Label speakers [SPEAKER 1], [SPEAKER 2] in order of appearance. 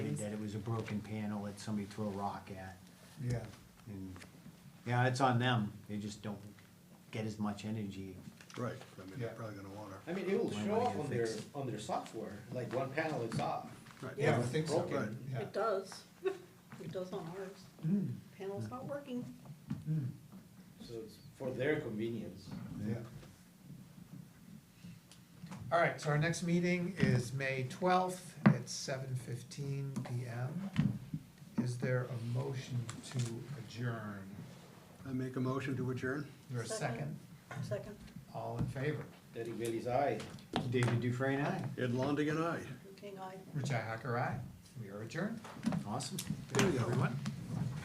[SPEAKER 1] broken panel that somebody threw a rock at.
[SPEAKER 2] yeah.
[SPEAKER 1] And, yeah, it's on them, they just don't get as much energy.
[SPEAKER 3] Right, I mean, they're
[SPEAKER 2] Yeah.
[SPEAKER 3] probably gonna wanna,
[SPEAKER 4] I mean, it will
[SPEAKER 1] Might
[SPEAKER 4] show
[SPEAKER 1] wanna
[SPEAKER 4] up
[SPEAKER 1] get
[SPEAKER 4] on their,
[SPEAKER 1] fixed.
[SPEAKER 4] on their software, like one panel is off.
[SPEAKER 3] right.
[SPEAKER 2] Yeah, I would think so,
[SPEAKER 4] Broken.
[SPEAKER 2] yeah.
[SPEAKER 5] It does. It does on ours.
[SPEAKER 2] Mm,
[SPEAKER 5] Panel's not working.
[SPEAKER 2] mm,
[SPEAKER 4] So it's for their convenience.
[SPEAKER 2] yeah. All right, so our next meeting is May twelfth at seven fifteen PM. Is there a motion to adjourn?
[SPEAKER 3] I make a motion to adjourn?
[SPEAKER 2] Is there a second?
[SPEAKER 5] Second. Second.
[SPEAKER 2] All in favor?
[SPEAKER 4] Derek Bailey's eye.
[SPEAKER 1] David Dufresne, aye.
[SPEAKER 3] Ed Longigan, aye.
[SPEAKER 5] King, I.
[SPEAKER 2] Richi Hacker, aye. We are adjourned.
[SPEAKER 1] Awesome.
[SPEAKER 3] There
[SPEAKER 2] Thank
[SPEAKER 3] you
[SPEAKER 2] you,
[SPEAKER 3] go.
[SPEAKER 2] everyone.